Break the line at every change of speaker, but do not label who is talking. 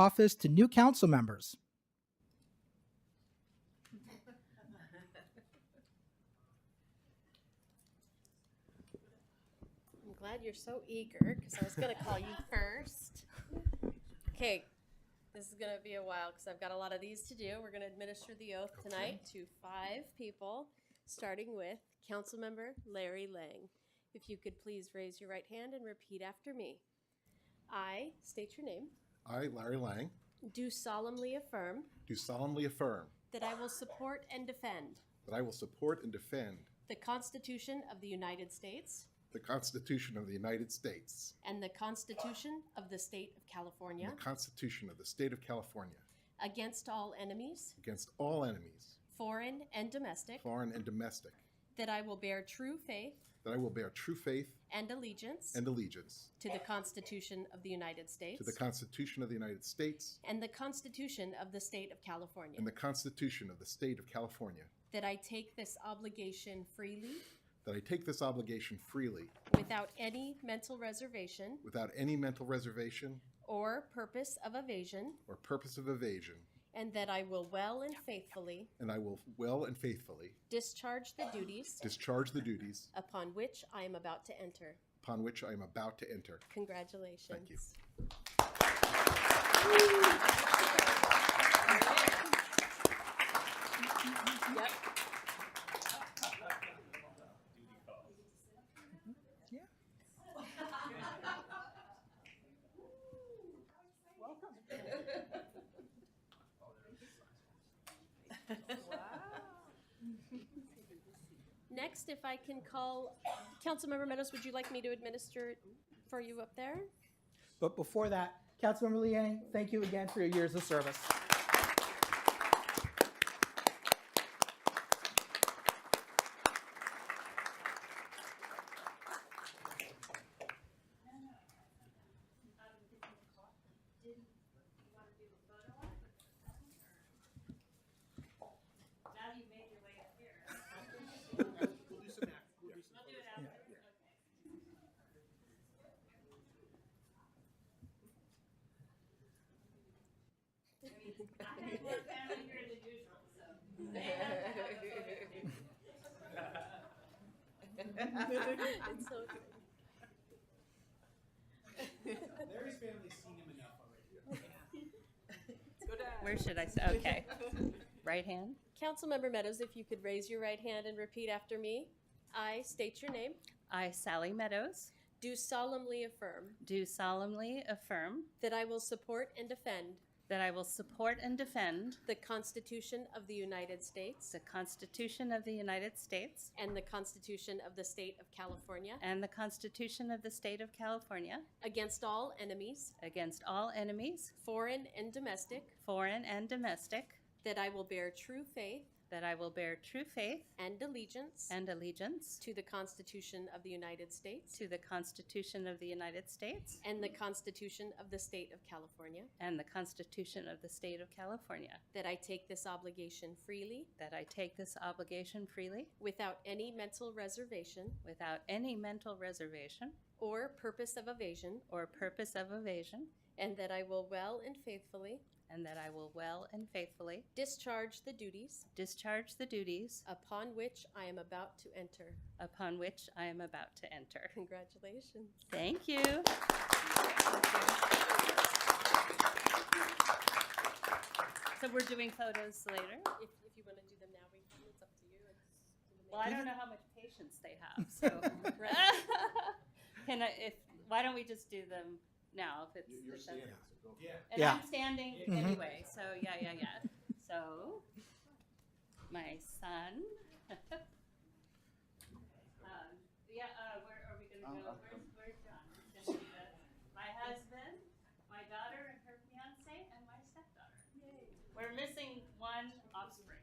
office to new council members.
I'm glad you're so eager because I was going to call you first. Okay, this is going to be a while because I've got a lot of these to do. We're going to administer the oath tonight to five people, starting with Councilmember Larry Lang. If you could please raise your right hand and repeat after me. I state your name,
I, Larry Lang,
do solemnly affirm
do solemnly affirm
that I will support and defend
that I will support and defend
the Constitution of the United States
the Constitution of the United States
and the Constitution of the State of California
and the Constitution of the State of California
against all enemies,
against all enemies,
foreign and domestic,
foreign and domestic,
that I will bear true faith
that I will bear true faith
and allegiance
and allegiance
to the Constitution of the United States
to the Constitution of the United States
and the Constitution of the State of California,
and the Constitution of the State of California,
that I take this obligation freely
that I take this obligation freely
without any mental reservation
without any mental reservation
or purpose of evasion,
or purpose of evasion,
and that I will well and faithfully
and I will well and faithfully
discharge the duties
discharge the duties
upon which I am about to enter.
upon which I am about to enter.
Congratulations.
Thank you.
Yep.
Yeah.
Next, if I can call, Councilmember Meadows, would you like me to administer it for you up there?
But before that, Councilmember Liang, thank you again for your years of service.
Now you've made your way up here. I have more family here than usual, so.
It's so good.
Larry's family's seen him enough already.
Where should I, s- okay. Right hand?
Councilmember Meadows, if you could raise your right hand and repeat after me. I state your name,
I, Sally Meadows,
do solemnly affirm
do solemnly affirm
that I will support and defend
that I will support and defend
the Constitution of the United States
the Constitution of the United States
and the Constitution of the State of California
and the Constitution of the State of California
against all enemies,
against all enemies,
foreign and domestic,
foreign and domestic,
that I will bear true faith
that I will bear true faith
and allegiance
and allegiance
to the Constitution of the United States
to the Constitution of the United States
and the Constitution of the State of California,
and the Constitution of the State of California,
that I take this obligation freely
that I take this obligation freely
without any mental reservation
without any mental reservation
or purpose of evasion,
or purpose of evasion,
and that I will well and faithfully
and that I will well and faithfully
discharge the duties
discharge the duties
upon which I am about to enter.
upon which I am about to enter.
Congratulations.
Thank you. So we're doing photos later?
If, if you want to do them now, we can. It's up to you.
Well, I don't know how much patience they have, so. Can I, if, why don't we just do them now if it's. if that's-
Yeah.
And
Yeah.
I'm standing
Yeah.
Mhm.
anyway, so yeah, yeah, yeah. So, my son. um, yeah, uh, where are we going to go? Where's, where's John? He's gonna be the- My husband, my daughter, and her fiance, and my stepdaughter. We're missing one offspring.